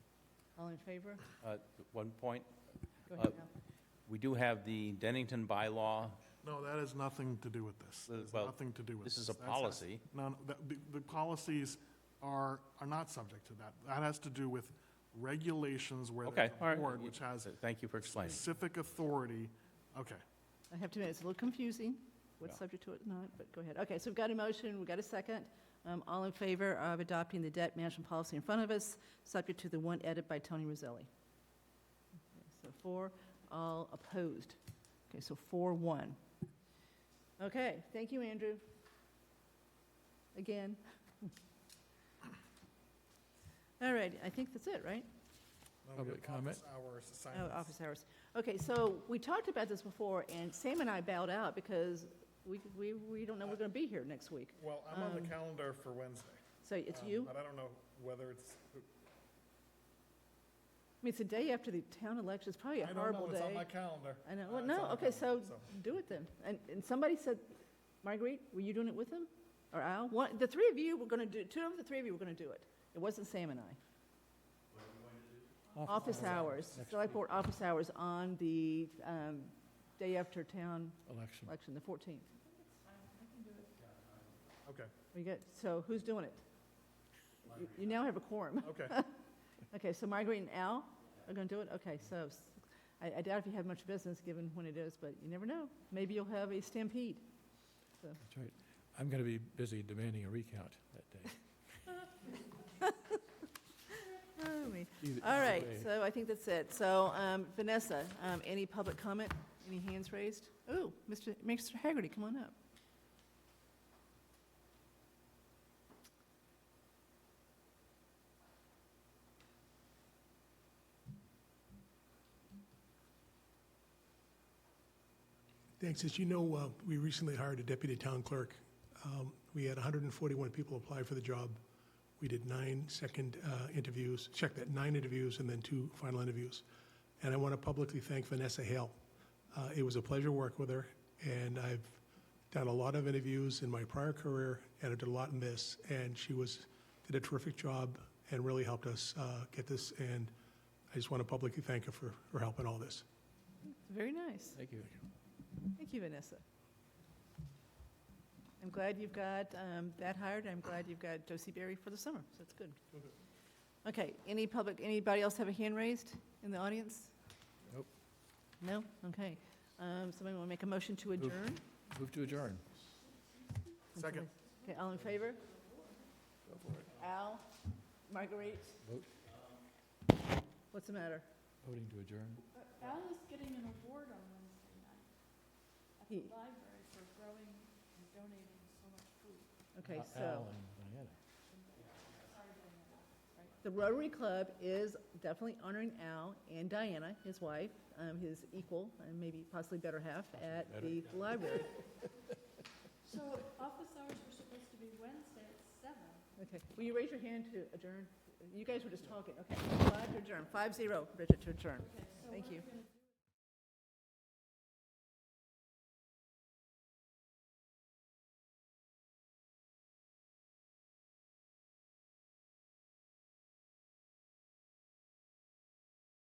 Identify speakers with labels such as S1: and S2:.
S1: All in favor?
S2: Uh, One point,
S1: Go
S2: Uh,
S1: ahead now.
S2: we do have the Dennington bylaw.
S3: No, that has nothing to do with this.
S2: Uh,
S3: It's
S2: well,
S3: nothing to do with this.
S2: This is a
S3: That's-
S2: policy.
S3: No, no, the, the policies are, are not subject to that. That has to do with regulations where
S2: Okay,
S3: there's
S2: all
S3: a
S2: right.
S3: board which has
S2: So Thank you for explaining.
S3: specific authority. Okay,
S1: I have to admit, it's a little confusing, what's
S2: Yeah.
S1: subject to it, not, but go ahead. Okay, so we've got a motion, we've got a second. Um, All in favor of adopting the debt management policy in front of us, subject to the one edit by Tony Roselli? Okay, So four, all opposed. Okay, so four, one. Okay, thank you, Andrew. Again. All right, I think that's it, right?
S3: Now we have
S4: Public comment?
S3: office Hours,
S1: Oh,
S3: assignments.
S1: office hours. Okay, so we talked about this before, and Sam and I bowed out because we, we, we don't know we're gonna be here next week.
S3: Well, I'm on the
S1: Um,
S3: calendar for Wednesday.
S1: So it's
S3: um,
S1: you, I
S3: But I don't know whether it's,
S1: mean, it's the day after the town election, it's probably a
S3: I don't know,
S1: horrible
S3: it's on
S1: day.
S3: my calendar.
S1: I know,
S3: Uh,
S1: well,
S3: it's
S1: no,
S3: on my
S1: okay, so
S3: calendar,
S1: do it then. And, and somebody said, Marguerite, were you doing it with him? Or Al? One, the three of you were gonna do, two of the three of you were gonna do it. It wasn't Sam and I. Office hours,
S4: next
S1: select
S4: week.
S1: board office hours on the, um, day after town
S4: Election.
S1: election, the fourteenth.
S3: Okay,
S1: We good? So who's doing it? You- You now have a quorum.
S3: okay.
S1: Okay, so Marguerite and Al are going to do it? Okay, so s- I I doubt if you have much business, given when it is, but you never know. Maybe you'll have a stampede.
S4: That's right. I'm going to be busy demanding a recount that day.
S1: Oh, me.
S4: Either-
S1: All
S4: either
S1: right,
S4: way.
S1: so I think that's it. So um, Vanessa, um, any public comment? Any hands raised? Ooh, Mr. Mr. Haggerty, come on up.
S5: Thanks. As you know, uh, we recently hired a deputy town clerk. Um, We had 141 people apply for the job. We did nine second uh, interviews, check that, nine interviews, and then two final interviews. And I want to publicly thank Vanessa Hale. Uh, It was a pleasure working with her, and I've done a lot of interviews in my prior career, and I did a lot in this, and she was, did a terrific job and really helped us uh, get this, and I just want to publicly thank her for her help in all this.
S1: Very nice.
S4: Thank you.
S1: Thank you, Vanessa. I'm glad you've got um, that hired, I'm glad you've got Josie Berry for the summer, so that's good. Okay, any public, anybody else have a hand raised in the audience?
S4: Nope.
S1: No? Okay. Um, Somebody want to make a motion to adjourn?
S4: Move to adjourn.
S3: Second.
S1: Okay, all in favor? Al? Marguerite?
S4: Vote.
S1: What's the matter?
S4: Voting to adjourn.
S6: Al is getting an award on Wednesday night at the
S1: He-
S6: library for growing and donating so much food.
S1: Okay,
S4: Al-
S1: so,
S4: Al and Diana.
S6: Sorry, Diana.
S1: the Rotary Club is definitely honoring Al and Diana, his wife, um, his equal, and maybe possibly better half, at the library.
S6: So office hours were supposed to be Wednesday at seven.
S1: Okay, will you raise your hand to adjourn? You guys were just talking, okay. Five to adjourn, five zero, Bridget to adjourn.
S6: Okay, so
S1: Thank
S6: what are
S1: you.
S6: we gonna do?